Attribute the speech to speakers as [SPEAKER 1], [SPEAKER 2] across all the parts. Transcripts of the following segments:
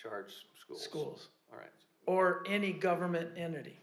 [SPEAKER 1] charge schools?
[SPEAKER 2] schools,
[SPEAKER 1] All right.
[SPEAKER 2] or any government entity.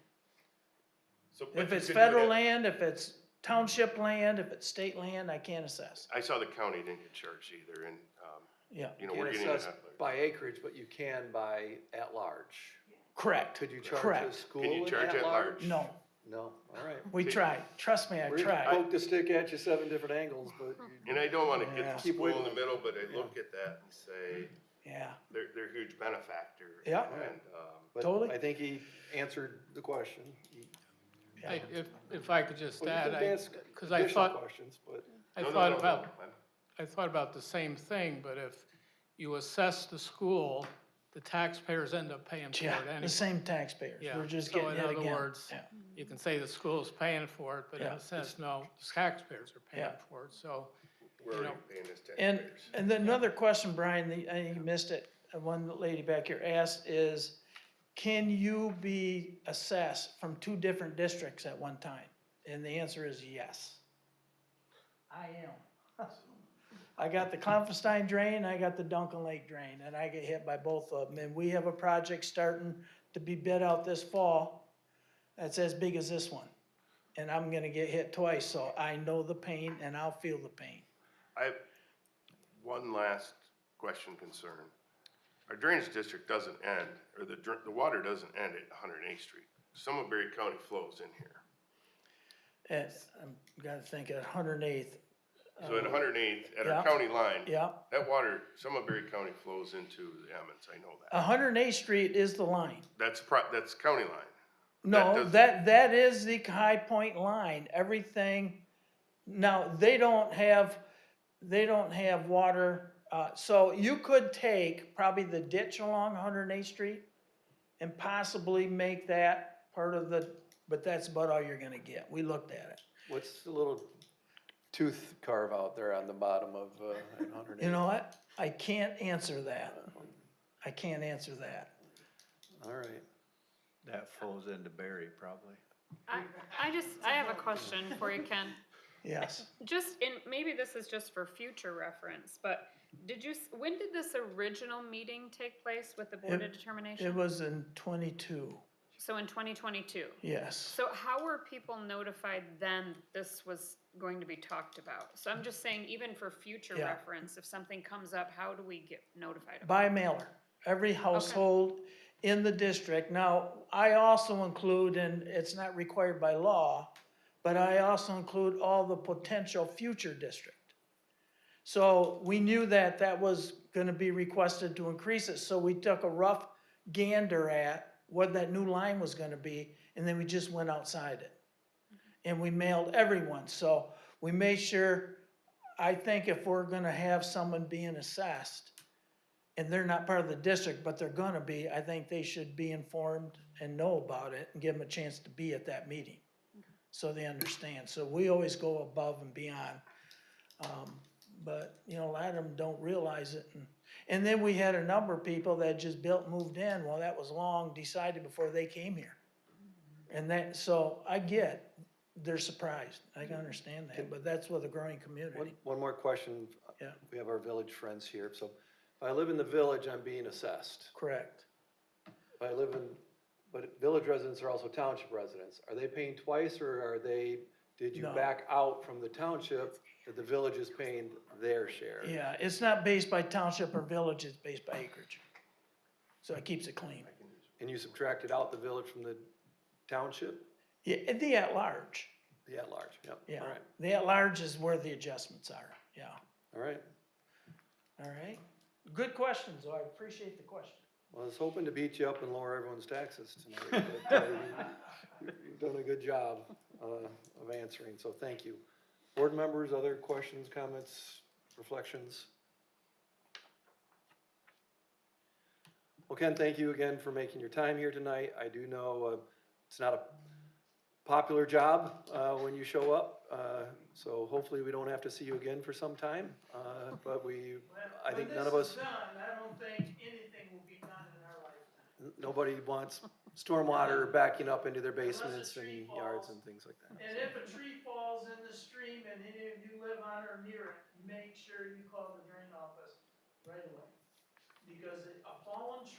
[SPEAKER 3] So, but
[SPEAKER 2] If
[SPEAKER 3] you
[SPEAKER 2] it's
[SPEAKER 3] could do it
[SPEAKER 2] federal
[SPEAKER 3] at-
[SPEAKER 2] land, if it's township land, if it's state land, I can't assess,
[SPEAKER 3] I saw the county didn't get charged either, and, um,
[SPEAKER 2] yeah,
[SPEAKER 3] you know,
[SPEAKER 1] Can't
[SPEAKER 3] we're getting.
[SPEAKER 1] assess
[SPEAKER 3] a-
[SPEAKER 1] By acreage, but you can by at-large.
[SPEAKER 2] correct,
[SPEAKER 1] Could you charge a
[SPEAKER 2] Correct.
[SPEAKER 1] school
[SPEAKER 3] Can you
[SPEAKER 1] an
[SPEAKER 3] charge
[SPEAKER 1] at-large?
[SPEAKER 3] at-large?
[SPEAKER 2] no,
[SPEAKER 1] No, all right.
[SPEAKER 2] we
[SPEAKER 3] Okay.
[SPEAKER 2] tried, trust me, I
[SPEAKER 1] We
[SPEAKER 2] tried,
[SPEAKER 1] poked a stick at you seven different angles, but you-
[SPEAKER 3] And I don't wanna
[SPEAKER 2] Yeah.
[SPEAKER 3] get the
[SPEAKER 1] Keep
[SPEAKER 3] school in the
[SPEAKER 1] wiggling.
[SPEAKER 3] middle, but I look at that and say,
[SPEAKER 2] yeah,
[SPEAKER 3] they're, they're a huge benefactor.
[SPEAKER 2] Yeah.
[SPEAKER 3] And, um,
[SPEAKER 1] but
[SPEAKER 2] Totally.
[SPEAKER 1] I think he answered the question. He-
[SPEAKER 2] yeah.
[SPEAKER 4] I- If, if I could just
[SPEAKER 1] Well, you
[SPEAKER 4] add,
[SPEAKER 1] can
[SPEAKER 4] I,
[SPEAKER 1] ask
[SPEAKER 4] 'cause I
[SPEAKER 1] additional
[SPEAKER 4] thought-
[SPEAKER 1] Questions, but
[SPEAKER 4] I
[SPEAKER 3] no, no,
[SPEAKER 4] thought
[SPEAKER 3] no, no,
[SPEAKER 4] about
[SPEAKER 3] I'm-
[SPEAKER 4] I thought about the same thing, but if you assess the school, the taxpayers end up paying for it
[SPEAKER 2] Yeah, the
[SPEAKER 4] anyway.
[SPEAKER 2] same taxpayers,
[SPEAKER 4] Yeah,
[SPEAKER 2] we're just
[SPEAKER 4] so
[SPEAKER 2] getting
[SPEAKER 4] in
[SPEAKER 2] it
[SPEAKER 4] other
[SPEAKER 2] again,
[SPEAKER 4] words,
[SPEAKER 2] yeah,
[SPEAKER 4] You can say the school's paying for it, but in
[SPEAKER 2] Yeah.
[SPEAKER 4] a sense, no, the taxpayers are paying
[SPEAKER 2] Yeah.
[SPEAKER 4] for it, so.
[SPEAKER 3] We're
[SPEAKER 4] You
[SPEAKER 3] already
[SPEAKER 4] know,
[SPEAKER 3] paying this
[SPEAKER 2] and,
[SPEAKER 3] taxpayers.
[SPEAKER 2] and then another question, Brian, the, I think you missed it, uh, one lady back here asked is, can you be assessed from two different districts at one time? And the answer is yes. I am. I got the Klopfenstein drain, I got the Duncan Lake drain, and I get hit by both of them, and we have a project starting to be bid out this fall that's as big as this one. And I'm gonna get hit twice, so I know the pain and I'll feel the pain.
[SPEAKER 3] I have one last question concern. Our drainage district doesn't end, or the, dr- the water doesn't end at 108th Street. Some of Berry County flows in here.
[SPEAKER 2] At, I'm gotta think at hundred and eighth,
[SPEAKER 3] So at 108th, at
[SPEAKER 2] Oh. yeah.
[SPEAKER 3] our county line,
[SPEAKER 2] yeah.
[SPEAKER 3] that water, some of Berry County flows into the Emmons, I know that.
[SPEAKER 2] hundred and eighth street is the line.
[SPEAKER 3] That's, pro- that's county line. That
[SPEAKER 2] No,
[SPEAKER 3] does-
[SPEAKER 2] that, that is the High Point line, everything. Now, they don't have, they don't have water, uh, so you could take probably the ditch along hundred and eighth street and possibly make that part of the, but that's about all you're gonna get. We looked at it.
[SPEAKER 1] what's the little tooth carve out there on the bottom of, uh, hundred and eight?
[SPEAKER 2] You know what? I can't answer that. I can't answer that.
[SPEAKER 1] All right.
[SPEAKER 5] That falls into Barry probably.
[SPEAKER 6] I, I just, I have a question for you, Ken.
[SPEAKER 2] Yes.
[SPEAKER 6] Just, and maybe this is just for future reference, but did you, s- when did this original meeting take place with the Board
[SPEAKER 2] It-
[SPEAKER 6] of
[SPEAKER 2] It
[SPEAKER 6] Determination?
[SPEAKER 2] was in twenty-two,
[SPEAKER 6] So in twenty twenty-two?
[SPEAKER 2] yes.
[SPEAKER 6] So how were people notified then that this was going to be talked about? So I'm just saying, even for future
[SPEAKER 2] Yeah.
[SPEAKER 6] reference, if something comes up, how do we get notified? about
[SPEAKER 2] By mailer, every household in the district. Now, I also include, and it's not required by law, but I also include all the potential future district. So we knew that that was gonna be requested to increase it, so we took a rough gander at what that new line was gonna be, and then we just went outside it. And we mailed everyone, so we made sure, I think if we're gonna have someone being assessed, and they're not part of the district, but they're gonna be, I think they should be informed and know about it and give them a chance to be at that meeting. So they understand. So we always go above and beyond. Um, but, you know, a lot of them don't realize it. And, and then we had a number of people that just built, moved in. Well, that was long decided before they came here. And that, so I get, they're surprised. I can understand that, but that's with a growing
[SPEAKER 1] One,
[SPEAKER 2] community.
[SPEAKER 1] one more question.
[SPEAKER 2] Yeah.
[SPEAKER 1] We have our village friends here, so if I live in the village, I'm being assessed.
[SPEAKER 2] Correct.
[SPEAKER 1] If I live in, but village residents are also township residents. Are they paying twice or are they, did you
[SPEAKER 2] No.
[SPEAKER 1] back out from the township that the village is paying their share?
[SPEAKER 2] Yeah, it's not based by township or village, it's based by acreage. So it keeps it clean.
[SPEAKER 1] And you subtracted out the village from the township,
[SPEAKER 2] Yeah, and the at-large,
[SPEAKER 1] the at-large, yep.
[SPEAKER 2] yeah.
[SPEAKER 1] All right,
[SPEAKER 2] The at-large is where the adjustments are, yeah,
[SPEAKER 1] all right.
[SPEAKER 2] all right? Good questions, though, I appreciate the question.
[SPEAKER 1] Well, I was hoping to beat you up and lower everyone's taxes tonight. but, uh, you- You've done a good job uh, of answering, so thank you. Board members, other questions, comments, reflections? Well, Ken, thank you again for making your time here tonight. I do know uh, it's not a popular job uh, when you show up, uh, so hopefully we don't have to see you again for some time. uh, But we, I think none of us.
[SPEAKER 2] done, I don't think anything will be done in our lifetime.
[SPEAKER 1] Nobody wants stormwater backing up into their basements
[SPEAKER 2] tree
[SPEAKER 1] and yards
[SPEAKER 2] falls.
[SPEAKER 1] and things like that.
[SPEAKER 2] And if a tree falls in the stream and any of you live on or near it, make sure you call the drain office right away. Because a fallen tree